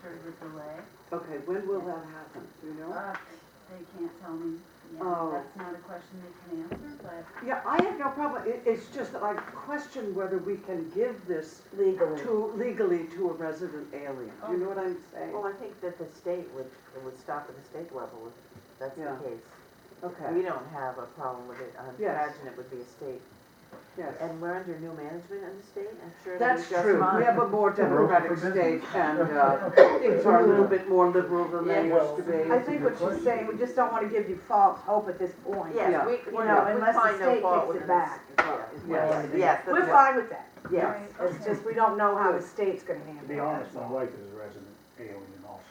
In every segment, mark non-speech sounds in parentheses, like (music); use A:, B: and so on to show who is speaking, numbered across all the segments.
A: started with delay.
B: Okay, when will that happen, do you know?
A: Uh, They can't tell me, yeah,
B: Oh.
A: that's not a question they can answer, but
B: Yeah, I have no problem, it, it's just that I question whether we can give this
C: legally.
B: to, legally to a resident alien, you know what I'm saying?
C: Well, I think that the state would, it would stop at the state level if that's
B: Yeah.
C: the case. We
B: Okay,
C: don't have a problem with it. I
B: Yes.
C: imagine it would be a state.
B: yes.
C: And we're under new management in the state, I'm sure it'll be
B: That's
C: just
B: true,
C: fine.
B: we have a more democratic
D: for
B: state
D: business. (laughs)
B: and, uh, things are a little bit more liberal than they
C: Yeah.
B: used to be.
E: I think what she's saying, we just don't wanna give you false hope at this point.
B: Yeah.
C: Yes, we,
E: You
C: we're
E: know,
C: not- we
E: unless the
C: find no
E: state
C: fault
E: takes
C: with
E: it
C: this.
E: back.
C: Yes,
D: Yeah.
C: yes,
E: We're
C: that's
E: fine with that,
C: it. Yes.
A: Right,
E: it's
A: okay.
E: just, we don't know how the state's gonna
D: To
E: handle it.
D: be honest, my wife is a resident alien also.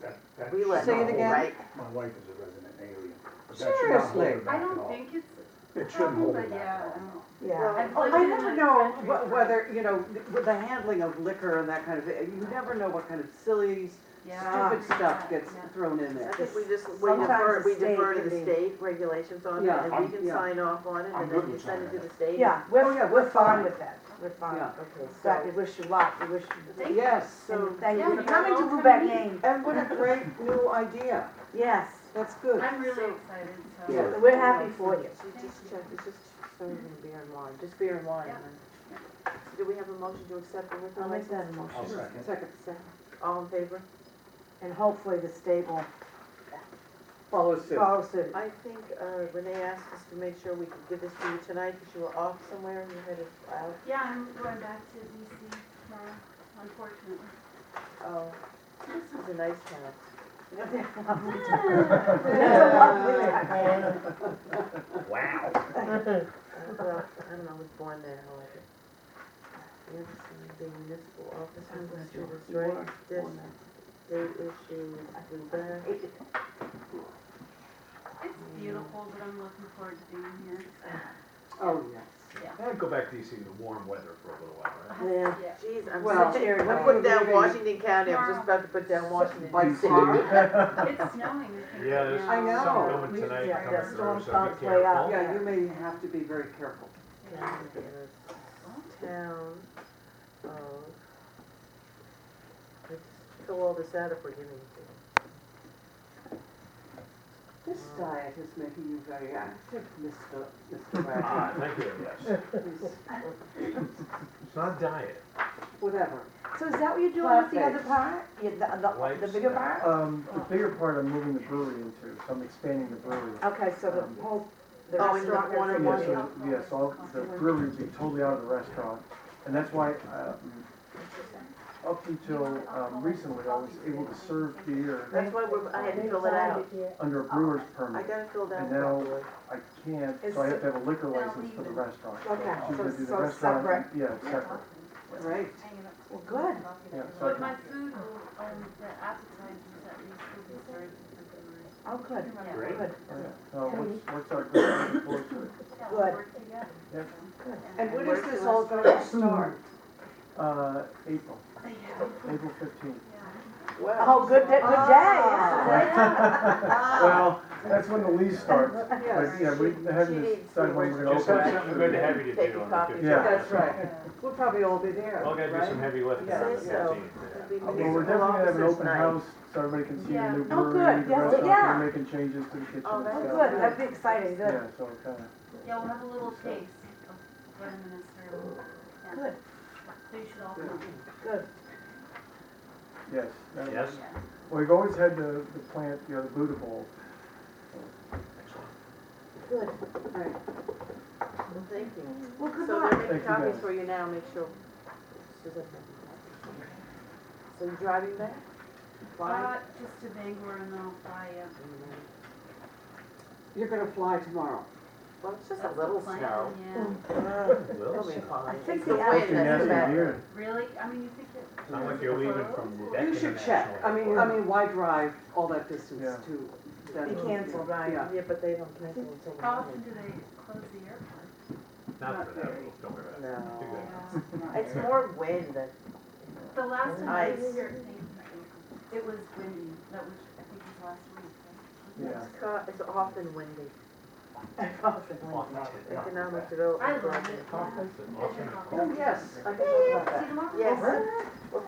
D: That, that.
C: We let.
B: Say it
D: not
B: again.
D: hold-
C: Right.
D: My wife is a resident alien. but that should not hold her
B: Seriously?
D: back
A: I
D: at
A: don't
D: all.
A: think it's
D: It
A: a
D: shouldn't
A: problem,
D: hold her
A: but
D: back
A: yeah,
D: at
A: I
D: all.
A: don't.
E: Yeah,
A: I've
B: Oh,
A: lived
B: I
A: in
B: never
A: my
B: know
A: country
B: wh-
A: for-
B: whether, you know, with the handling of liquor and that kind of, thing, you never know what kind of silly,
C: Ah.
A: Yeah.
B: stupid stuff gets
A: Yeah.
B: thrown in
C: I
B: there.
C: think we just, we
E: Sometimes
C: defer,
E: the
C: we defer
E: state
C: to the
E: can be-
C: state regulations on it,
B: Yeah,
C: and
D: I'm-
C: we can
B: yeah.
C: sign off on it,
D: I'm
C: and
D: good
C: then you
D: with
C: send it to
D: signing
C: the state.
E: yeah,
B: Oh, yeah,
E: we're,
B: we're
E: we're fine
B: fine.
E: with that, we're fine.
B: Yeah.
C: Okay,
E: But we
C: so,
E: wish you luck, we wish you,
A: Thank-
B: Yes,
E: and
B: so,
E: thank
A: Yeah,
E: you for
A: you're
E: coming to
A: welcome.
E: Lubec Maine,
B: and what a great new idea,
E: yes,
B: that's good.
A: I'm really excited, so.
D: Yeah.
E: we're happy for you.
C: so just check, it's just serving beer and wine, just beer and wine.
A: Yeah.
C: then. So Do we have a motion to accept the liquor license?
E: that
D: I'll second.
B: Second,
C: Second. All in favor?
E: And hopefully the state will
B: follow suit.
E: follow
F: (laughs)
E: suit.
C: I think uh, Renee asked us to make sure we could give this to you tonight, because you were off somewhere and you headed out.
A: Yeah, I'm going back to DC tomorrow,
B: (laughs)
A: unfortunately.
C: Oh, this is a nice town.
E: That's a lovely idea.
D: Wow.
C: Uh, Well, I don't know, I was born there, I like it. You ever seen the municipal office on the street, it's right, this, they issue, Lubec.
A: It's beautiful, but I'm looking forward to being here.
B: Oh, yes.
F: And go back to DC in the warm weather for a little while, right?
E: Yeah.
A: Yeah.
C: Geez, I'm
B: Well,
C: such
E: here
C: a,
E: it
C: I
E: is.
C: put down
B: Leaving-
C: Washington County, I'm just about to put down Washington.
B: By
D: DC.
B: car?
A: It's snowing. I think,
F: Yeah,
A: right
F: there's
A: now.
B: I know.
F: Some going
E: We-
F: tonight
E: yeah,
F: coming
E: the storm
F: through, so
E: cloud's
F: be
E: way up.
F: careful.
B: Um, Yeah, you may have to be very careful.
A: Yeah.
C: County is Town of, um, let's fill all this out if we're giving it to them.
B: This diet is making you very active, Mr. Mr.
F: Ah,
B: Wagner.
F: thank you,
D: (laughs)
F: yes.
B: Please,
F: It's not diet.
B: Whatever.
E: So is that what you're doing with the
B: Plant-based.
E: other part? Yeah, the, the, the bigger part?
G: Um, the bigger part I'm moving the brewery into, so I'm expanding the brewery.
E: Okay, so the whole, the
C: Oh, in the
E: restaurant.
C: corner
E: is-
G: Yeah,
C: one.
G: so, yeah, so I'll- the brewery will be totally out of the restaurant, and that's why, um, up until, um, recently, I was able to serve beer
C: That's why we're, I had to fill it out.
G: under a brewer's
C: I
G: permit.
C: gotta fill that
G: And now-
C: out.
G: I can't, so I have to have a liquor license for the restaurant.
E: Okay,
G: So
E: so,
G: you do the
E: so
G: restaurant and-
E: separate.
G: Yeah, it's separate.
B: Great.
E: Well, good.
G: Yeah, so I
A: But
G: can-
A: my food will, um, the appetizers at least will be served at the brewery.
E: Oh, good,
F: Great.
E: good.
G: all right. So what's, what's our goal looking forward to it?
A: Yeah, we'll
E: Good.
A: work together.
G: Yep.
E: Good.
B: And when
C: where's
B: is this
C: the
B: all going to start?
G: Uh, April,
A: Yeah.
G: April fifteenth.
E: Oh, good, day- good day.
G: Well, that's when the lease starts, but
B: Yes.
G: yeah, we haven't
C: She- she
G: decided when we're gonna open.
F: Just have something good to have you to
C: Take a
F: do on
C: copy.
F: the fifteenth.
G: Yeah.
B: That's right. We'll probably all be there,
F: Well, gotta do some
B: right?
F: heavy lifting on the
C: Say so.
F: fifteenth.
C: It'd be
G: Well, we're
C: municipal
G: definitely gonna have an
C: officers
G: open
C: night.
G: house, so everybody can see the
A: Yeah.
G: new
E: Oh,
G: brewery,
E: good.
G: the
E: Yes,
G: restaurant,
E: yeah.
G: we're making changes to the kitchen and
C: Oh,
G: stuff.
C: that's
E: Oh, good, that'd be exciting, good.
G: Yeah, so it kinda,
A: Yeah, we'll have a little taste of what I'm gonna serve. Yeah.
E: Good.
A: So you should all come.
G: yes. that-
F: Yes?
A: Yeah.
G: Well, We've always had the, the plant, you know, the Buddha Bowl,
F: Excellent.
E: Good.
C: Thank you.
E: Well, good
C: So
E: luck.
C: they're making
G: Thank you,
C: copies
G: guys.
C: for you now, make sure. Suzanne- So you're driving back? Flying?
A: Uh, just to Bangor and then I'll fly up.
B: You're going to fly tomorrow.
C: Well, it's just a
A: That's the
C: little
A: plan,
C: snow.
A: Yeah.
F: Well,
C: It'll be fine.
E: I think
C: It's the
E: the
C: wind
E: after-
G: it's a
C: that's the
G: nasty
C: bad-
G: beer.
A: Really? I mean, you think it,
F: it's not like you're leaving from Lubec
B: You should check. I
F: International
B: mean, I
F: Airport.
B: mean, why drive all that distance
G: Yeah.
B: to Denver?
E: canceled, right?
B: Yeah.
C: Yeah, but they don't cancel until. the
A: how often
C: morning.
A: do they close the airport?
F: Not for that, don't worry about it. You're
C: No.
F: good.
A: Yeah.
C: It's more wind than,
A: The last time I
C: Ice.
A: was here, it was windy, that was, I think it was last week. right?
G: Yeah.
C: it's co- it's often windy.
F: Often.
C: Economic development.
A: I love it.
F: Often.
A: Often.
B: Oh, yes, I can talk about that.
A: See tomorrow?
C: Yes.